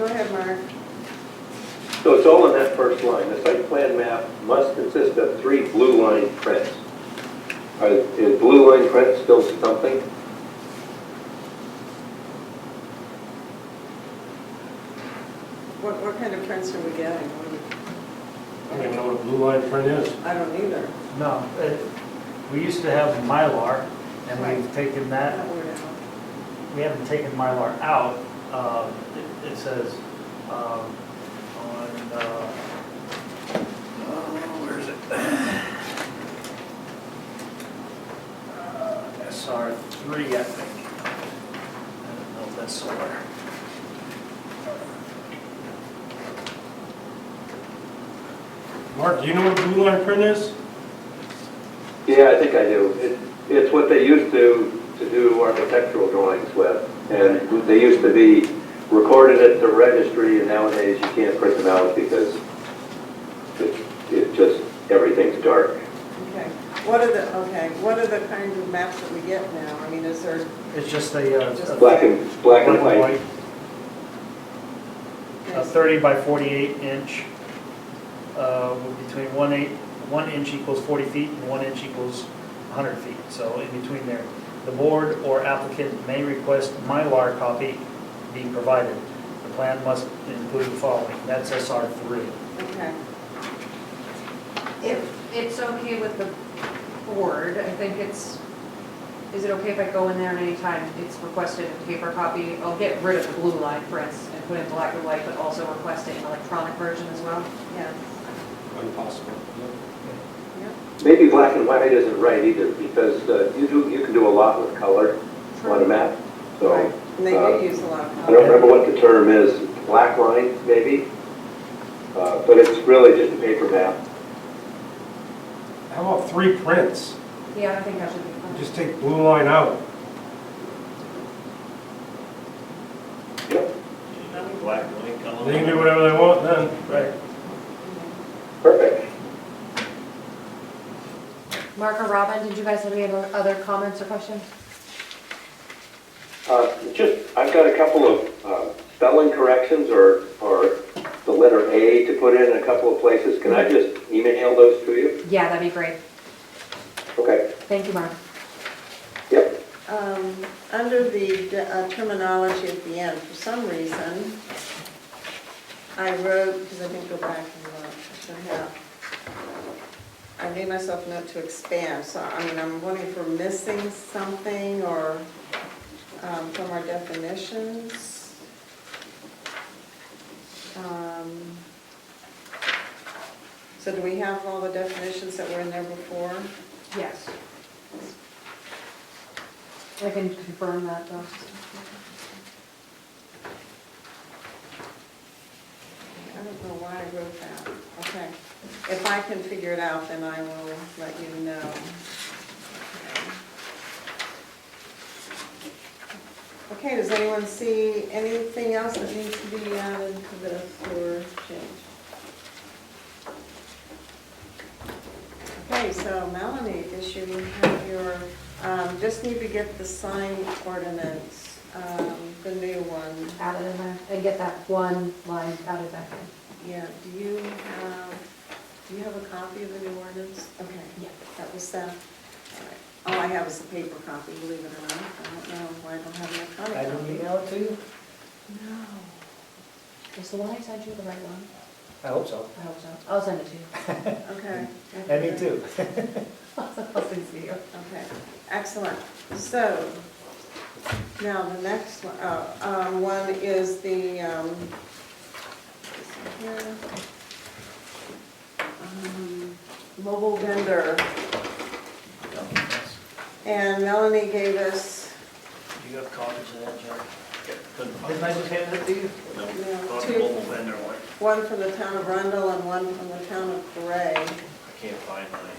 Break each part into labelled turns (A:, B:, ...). A: Go ahead, Mark.
B: So it's all in that first line, the site plan map must consist of three blue line prints. Are- Is blue line print still something?
A: What, what kind of prints are we getting? What
C: I don't even know what a blue line print is.
A: do- I don't either.
D: No, it- we used to have Mylar, and we've taken
A: I
D: that,
A: don't wear it out.
D: we haven't taken Mylar out. Um, it- It says um, on, uh, oh, where is it? Uh, SR three, I think. I don't know if that's solar.
C: Mark, do you know what a blue line print is?
B: Yeah, I think I do. It- It's what they used to, to do architectural drawings with. And they used to be recorded at the registry, and nowadays you can't print them out because it, it just, everything's dark.
A: Okay. What are the, okay, what are the kinds of maps that we get now? I mean, is there,
D: It's just a, uh,
A: Just
D: a-
B: Black and, black and white.
D: a 30 by 48 inch, uh, between one eight, one inch equals 40 feet and one inch equals 100 feet, so in between there. The board or applicant may request Mylar copy be provided. The plan must include the following, that's SR 3.
A: okay,
E: If it's okay with the board, I think it's, is it okay if I go in there and anytime it's requested a paper copy? I'll get rid of the blue line prints and put in black and white, but also request an electronic version as well?
A: yes.
C: Impossible.
B: Maybe black and white isn't right either, because uh, you do, you can do a lot with color on a map, so.
A: Right. And they
B: uh,
A: do use a lot of.
B: I don't remember what the term is, black line, maybe? Uh, But it's really just a paper map.
C: How about three prints?
E: Yeah, I think that should be
C: Just take blue line out.
B: Yep,
C: They can do whatever they want then. Right.
B: perfect.
E: fine. Mark or Robin, did you guys have any other other comments or questions?
B: Uh, Just, I've got a couple of uh, spelling corrections or, or the letter A to put in a couple of places. Can I just email those to you?
E: Yeah, that'd be great.
B: Okay,
E: Thank you, Mark.
B: yep.
A: Um, Under the de- uh, terminology at the end, for some reason, I wrote, because I didn't go back and look, I should have. I made myself a note to expand, so I mean, I'm wondering if we're missing something or um, from our definitions. Um, So do we have all the definitions that were in there before?
E: Yes. I can confirm that, though.
A: I don't know why I wrote that. Okay. If I can figure it out, then I will let you know. Okay, does anyone see anything else that needs to be added to this or change? Okay, so Melanie, guess you have your, um, just need to get the sign ordinance, um, the new one.
E: Add it in there and get that one line added back in.
A: Yeah, do you have, do you have a copy of the new ordinance? Okay,
E: Yeah.
A: that was that. All right. All I have is a paper copy, believe it or not. I don't know why I don't have an electronic
D: I
A: copy.
D: didn't email it to you?
A: No.
E: Is the one I sent you the right one?
D: I hope so.
E: I hope so. I'll send it to you.
A: Okay.
D: And me too.
E: I'll send it to you.
A: Okay, excellent. So, now the next one, oh, um, one is the, um, this one here. Um, mobile vendor. And Melanie gave us,
D: You have copies of that, Jerry? Didn't I just hand it to you?
A: you know, two,
D: vendor one.
A: one from the town of Rundle and one from the town of Gray.
D: I can't find mine.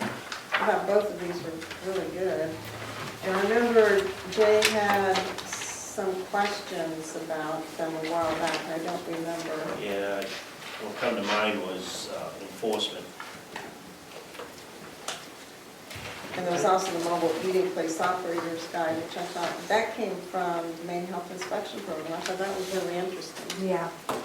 A: I thought both of these were really good. And I remember Jay had some questions about them a while back, I don't remember.
F: Yeah, what come to mind was uh, enforcement.
A: And there was also the mobile eating place operators guide, which I thought, that came from the Maine Health Inspection Program, I thought that was really interesting.
E: Yeah,